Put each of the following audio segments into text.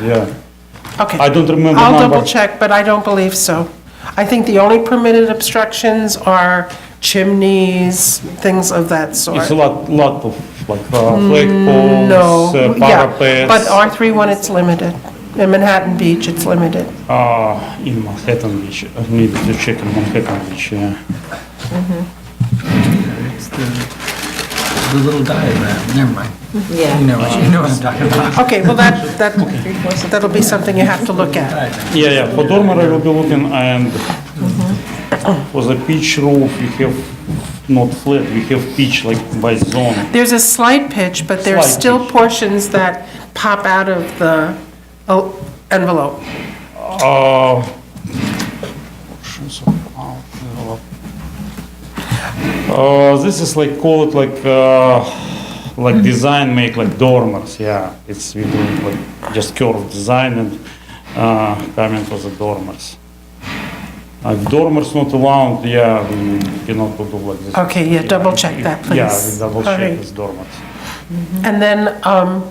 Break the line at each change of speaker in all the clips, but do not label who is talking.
Yeah,
Okay.
I don't remember
I'll
number.
double check, but I don't believe so. I think the only permitted obstructions are chimneys, things of that
it's
sort.
a lot, lot of like uh, flagpoles,
Mm, No,
uh,
yeah, but
parapets,
R31, it's limited. In Manhattan Beach, it's limited.
uh, in Manhattan Beach. I need to check in Manhattan Beach. Yeah.
It's the, the little diagram, never mind. You
Yeah.
know, what- you know what I'm talking about.
Okay, well, that, that, that'll be something you have to look at.
Yeah, yeah, for dormer I will be looking and
Mm-hmm.
for the pitch roof, we have not flat, we have pitch like by zone.
There's a slight pitch, but there's
Slight
still
pitch.
portions that pop out of the oh, envelope.
Uh, options of out, develop. Uh, this is like, call it like, uh, like design make like dormers, yeah. It's, we do it like just curved design and, uh, coming for the dormers. Uh, dormers not allowed, yeah, we cannot do like this.
Okay, yeah, double check that, please.
Yeah, we double
All right.
check this dormers.
And then um,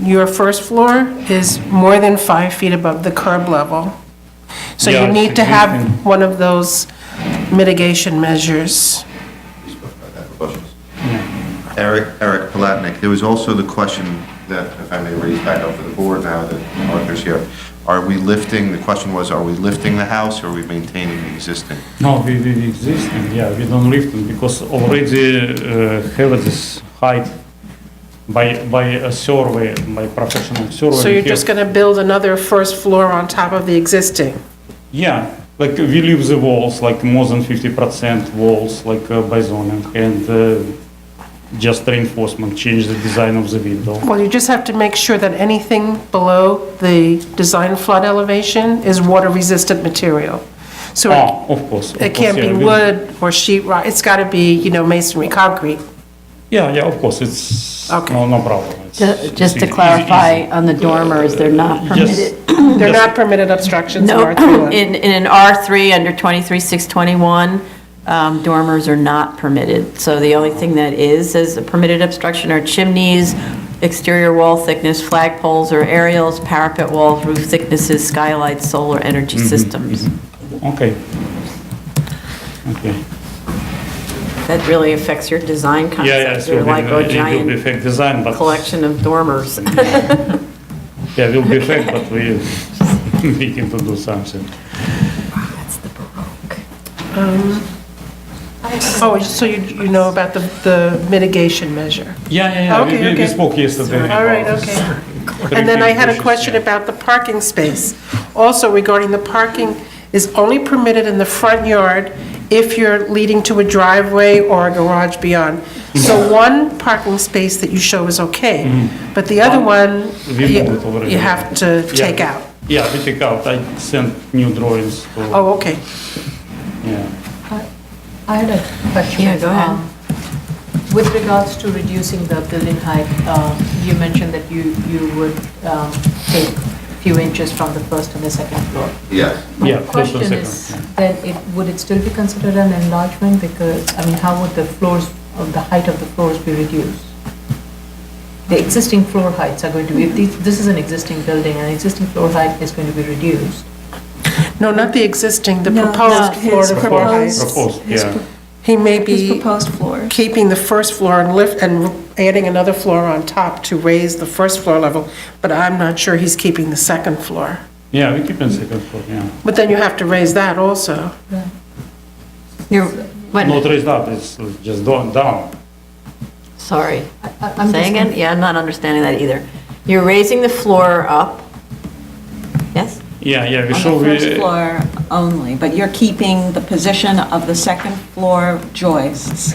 your first floor is more than five feet above the curb level. So
Yeah,
you
it's
need to
significant.
have one of those mitigation measures.
Eric, Eric Palatnik, there was also the question that, if I may raise back up for the board now that Arthur's here, are we lifting, the question was, are we lifting the house or are we maintaining the existing?
No, we, we we exist and yeah, we don't lift them because already uh, have this height by, by a survey, by professional survey.
So
we
you're
have-
just going to build another first floor on top of the existing?
Yeah, like we leave the walls, like more than 50% walls, like uh, by zoning and uh, just reinforcement, change the design of the window.
Well, you just have to make sure that anything below the design flood elevation is water-resistant material. So it-
Ah, of course. of
it
course,
can't be
yeah, we-
wood or sheet rock, it's got to be, you know, masonry, concrete.
Yeah, yeah, of course, it's
Okay.
no, no problem. It's-
Ju- Just
it's
to
easy-
clarify,
easy.
on the dormers, they're not
Yes.
permitted.
They're not permitted obstructions in
No,
R31.
in, in an R3, under 23,621, um, dormers are not permitted. So the only thing that is, is a permitted obstruction are chimneys, exterior wall thickness, flagpoles or aerials, parapet walls, roof thicknesses, skylights, solar energy
Mm-hmm.
systems.
Okay. Okay.
That really affects your design
Yeah, yeah,
concept.
so
You're like
it will
a
it will be
giant
effect design, but.
collection of dormers.
Yeah, will be effect, but we, we can to do something.
Oh, so you, you know about the, the mitigation measure?
Yeah, yeah, yeah, we-
Okay,
we, we
okay.
spoke yesterday.
All right,
about this.
okay. And then I had a question
Yeah.
about the parking space. Also regarding the parking is only permitted in the front yard if you're leading to a driveway or a garage beyond. So one parking space that you show is okay, but the other Mm-hmm. one,
We moved it
you
already.
you have to
Yeah.
take out.
Yeah, we take out, I sent new drawings to,
Oh, okay.
yeah.
I had a question.
Yeah, go ahead.
Um, With regards to reducing the building height, uh, you mentioned that you, you would um, take a few inches from the first and the second floor.
Yes.
Yeah,
My
first and
question
second,
is, then it, would it still be considered an enlargement? Because, I mean, how would the floors, of the height of the floors be reduced? The existing floor heights are going to be, if these- this is an existing building, an existing floor height is going to be reduced.
No, not the existing, the
No,
proposed
no,
floor
his
to floor
proposed-
height.
Proposed,
his
yeah.
pro-
He may be.
His proposed floor.
keeping the first floor and lift, and adding another floor on top to raise the first floor level, but I'm not sure he's keeping the second floor.
Yeah, we keep in second floor, yeah.
But then you have to raise that also.
You're,
Not
what,
raised up, it's just down, down.
sorry.
I- I- I'm just
Say again? Yeah, I'm not understanding that either. You're raising the floor up, yes?
Yeah, yeah, we
On
show,
the
we,
first floor only, but you're keeping the position of the second floor joists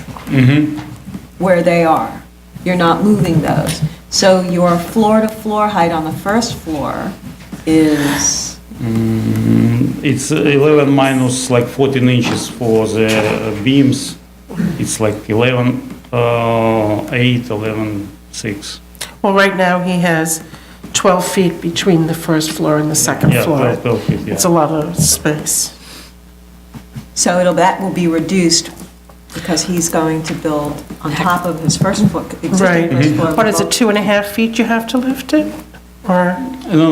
where they are. You're not moving those. So your floor-to-floor height on the first floor is,
it's 11 minus like 14 inches for the uh, beams. It's like 11, uh, 8, 11, 6.
Well, right now, he has 12 feet between the first floor and the second
Yeah,
floor.
12, 12 feet, yeah.
It's a lot of space.
so it'll, that will be reduced because he's going to build on top of his first floor, existing
Right.
first floor.
What is
above
it, two and a half feet you have to lift it? Or?
No,